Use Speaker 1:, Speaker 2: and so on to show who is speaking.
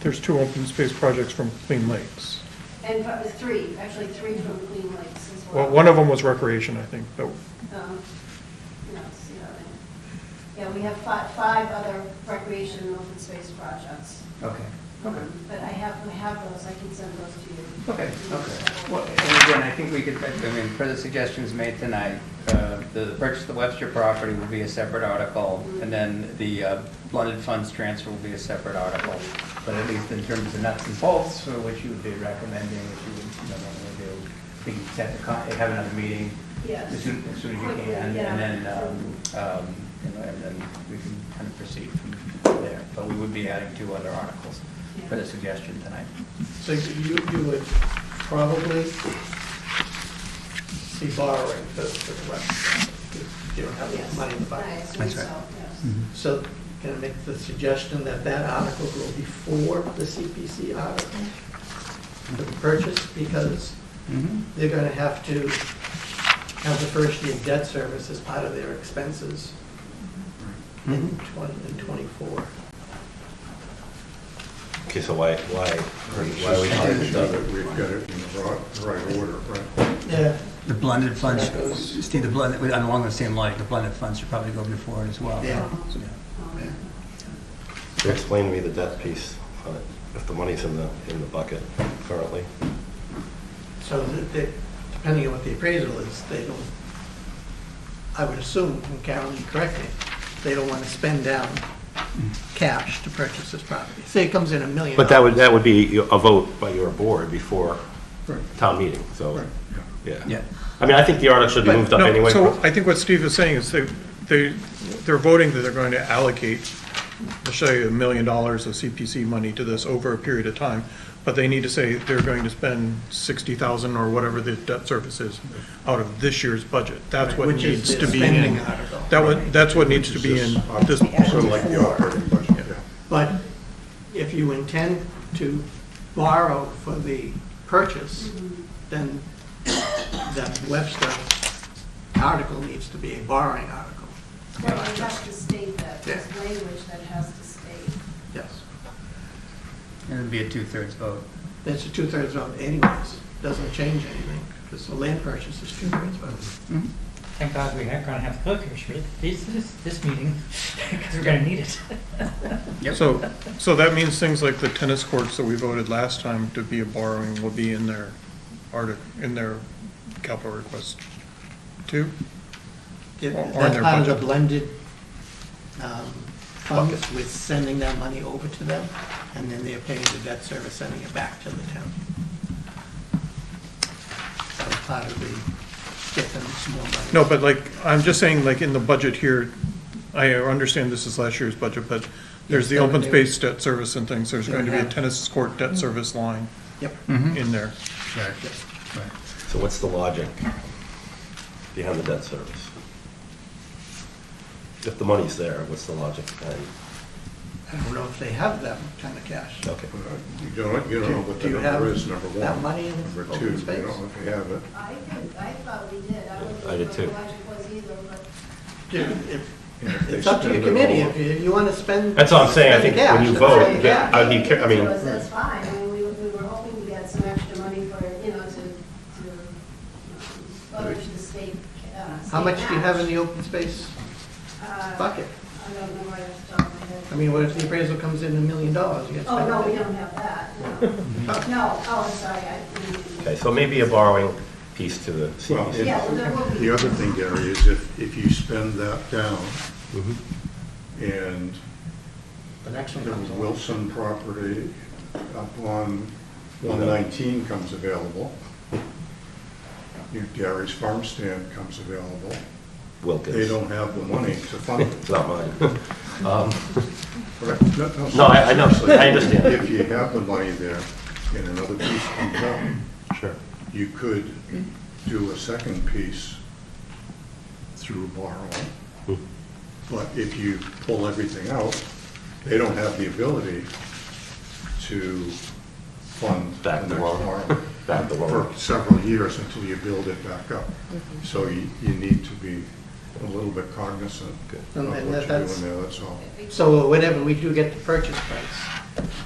Speaker 1: There's two open space projects from Clean Lakes.
Speaker 2: And uh, three, actually three from Clean Lakes as well.
Speaker 1: Well, one of them was recreation, I think, though.
Speaker 2: Um, no, it's the other. Yeah, we have five, five other recreation and open space projects.
Speaker 3: Okay, okay,
Speaker 2: But I have, I have those, I can send those to you.
Speaker 3: okay, okay. Well, and again, I think we could, I mean, for the suggestions made tonight, uh, the purchase of the Webster property will be a separate article, and then the uh, London funds transfer will be a separate article. But at least in terms of nuts and bolts, for which you would be recommending, which you would normally do, I think you set the, con- have another meeting
Speaker 2: Yes.
Speaker 3: as soon as soon as you
Speaker 2: Quickly,
Speaker 3: can, and
Speaker 2: yeah.
Speaker 3: then, um, um, you know, and then we can kind of proceed from there. But we would be adding two other articles for the suggestion tonight.
Speaker 4: So you, you would probably be borrowing for, for the rest. You don't have
Speaker 2: Yes.
Speaker 4: the money in the
Speaker 2: I
Speaker 4: bank.
Speaker 2: assume
Speaker 3: That's right.
Speaker 2: so, yes.
Speaker 5: Mm-hmm.
Speaker 4: So can I make the suggestion that that article go before the CPC article for the purchase? Because
Speaker 6: Mm-hmm.
Speaker 4: they're gonna have to have the first year debt service as part of their expenses in
Speaker 6: Mm-hmm.
Speaker 4: twenty, in twenty-four.
Speaker 5: Okay, so why, why, why are we talking
Speaker 7: We've
Speaker 5: about it?
Speaker 7: got it in the right, the right order, right? Uh,
Speaker 4: Yeah,
Speaker 6: The blended funds,
Speaker 4: That goes-
Speaker 6: Steve, the blended, along the same line, the blended funds should probably go before it as well.
Speaker 4: Yeah.
Speaker 6: So,
Speaker 2: Um,
Speaker 5: So Explain to me the debt piece on it, if the money's in the, in the bucket currently.
Speaker 4: So that, they- depending on what the appraisal is, they don't, I would assume, and Carolyn, you correct me, they don't want to spend down cash to purchase this property. Say it comes in a million.
Speaker 5: But that would,
Speaker 4: dollars.
Speaker 5: that would be a vote by your board before
Speaker 4: Right.
Speaker 5: town meeting, so,
Speaker 4: Right.
Speaker 5: yeah.
Speaker 6: Yeah.
Speaker 5: I mean, I think the article should be
Speaker 4: But-
Speaker 5: moved up
Speaker 1: No,
Speaker 5: anyway.
Speaker 1: So I think what Steve is saying is they, they, they're voting that they're going to allocate, I'll show you, a million dollars of CPC money to this over a period of time, but they need to say they're going to spend sixty thousand or whatever the debt service is out of this year's budget. That's what
Speaker 4: Which is
Speaker 1: needs
Speaker 4: the
Speaker 1: to be in.
Speaker 4: spending article.
Speaker 1: That would, that's what needs to be in this.
Speaker 7: Sort of like the operating budget, yeah.
Speaker 4: But if you intend to borrow for the purchase,
Speaker 2: mm-hmm.
Speaker 4: then that Webster article needs to be a borrowing article.
Speaker 2: Well, I have to state that, there's
Speaker 4: Yeah.
Speaker 2: language that has to state.
Speaker 4: Yes.
Speaker 3: And it'd be a two-thirds vote.
Speaker 4: That's a two-thirds vote anyways, doesn't change anything, because the land purchase is two-thirds vote.
Speaker 8: Thank God we are gonna have clickers for this, this, this meeting, because we're gonna need it.
Speaker 1: So, so that means things like the tennis courts that we voted last time to be a borrowing will be in their artic, in their capital request too?
Speaker 4: Get-
Speaker 1: Or- or
Speaker 4: That's
Speaker 1: their
Speaker 4: part of the
Speaker 1: budget.
Speaker 4: blended um, funds, with sending that money over to them, and then they're paying the debt service, sending it back to the town. That was part of the, get them some more money.
Speaker 1: No, but like, I'm just saying, like, in the budget here, I understand this is last year's budget, but there's the
Speaker 4: Yes, that
Speaker 1: open
Speaker 4: would be- Mm-hmm.
Speaker 1: space debt service and things, there's going to be a tennis court debt service line
Speaker 4: Yep.
Speaker 1: in there.
Speaker 3: Right.
Speaker 5: So what's the logic behind the debt service? If the money's there, what's the logic behind,
Speaker 4: I don't know if they have that kind of cash.
Speaker 5: okay.
Speaker 7: But You don't, you don't know what
Speaker 4: Do
Speaker 7: the
Speaker 4: you have
Speaker 7: number is, number one.
Speaker 4: that money in
Speaker 7: Number
Speaker 4: open
Speaker 7: two, you
Speaker 4: space?
Speaker 7: don't know if you have it.
Speaker 2: I think, I thought we did, I don't
Speaker 5: I
Speaker 2: know
Speaker 5: did
Speaker 2: what the
Speaker 5: too.
Speaker 2: logic was either, but
Speaker 4: Dude, if-
Speaker 7: And if they
Speaker 4: It's up to your
Speaker 7: spend it all
Speaker 4: committee,
Speaker 7: up-
Speaker 4: if you, you want to spend.
Speaker 5: That's what I'm saying, I think
Speaker 4: spend
Speaker 5: when you
Speaker 4: cash, that's
Speaker 5: vote,
Speaker 4: spend cash.
Speaker 5: yeah, I'd be, care- I mean.
Speaker 2: Because That's fine, I mean, we, we were hoping to get some extra money for, you know, to, to, um, leverage the state, uh, state
Speaker 4: How much do you have in the
Speaker 2: match.
Speaker 4: open space
Speaker 2: Uh,
Speaker 4: bucket?
Speaker 2: I don't know right off the top of my head.
Speaker 4: I mean, what if the appraisal comes in a million dollars? You gotta
Speaker 2: Oh,
Speaker 4: spend
Speaker 2: no,
Speaker 4: it.
Speaker 2: we don't have that, no. No, oh, I'm sorry, I.
Speaker 5: Okay, so maybe a borrowing piece to the
Speaker 7: Well,
Speaker 5: CPC.
Speaker 2: Yeah, well, there will
Speaker 7: and
Speaker 2: be.
Speaker 7: the other thing, Gary, is if, if you spend that down and
Speaker 4: The next one
Speaker 7: the
Speaker 4: comes along.
Speaker 7: Wilson property up on 119 comes available, New Dairy's farm stand comes available,
Speaker 5: Wilkins.
Speaker 7: they don't have the money to fund it.
Speaker 5: It's not mine.
Speaker 7: Correct.
Speaker 5: No, I- I know.
Speaker 7: seriously.
Speaker 5: I understand.
Speaker 7: If you have the money there and another piece comes up,
Speaker 5: Sure.
Speaker 7: you could do a second piece through borrowing. But if you pull everything out, they don't have the ability to fund the
Speaker 5: Back the
Speaker 7: next
Speaker 5: loan.
Speaker 7: borrowing
Speaker 5: Back the loan.
Speaker 7: for several years until you build it back up.
Speaker 4: Mm-hmm.
Speaker 7: So you, you need to be a little bit cognizant of
Speaker 4: And-
Speaker 7: what
Speaker 4: and
Speaker 7: you're doing
Speaker 4: that's-
Speaker 7: there, that's all.
Speaker 4: So whatever we do get the purchase price,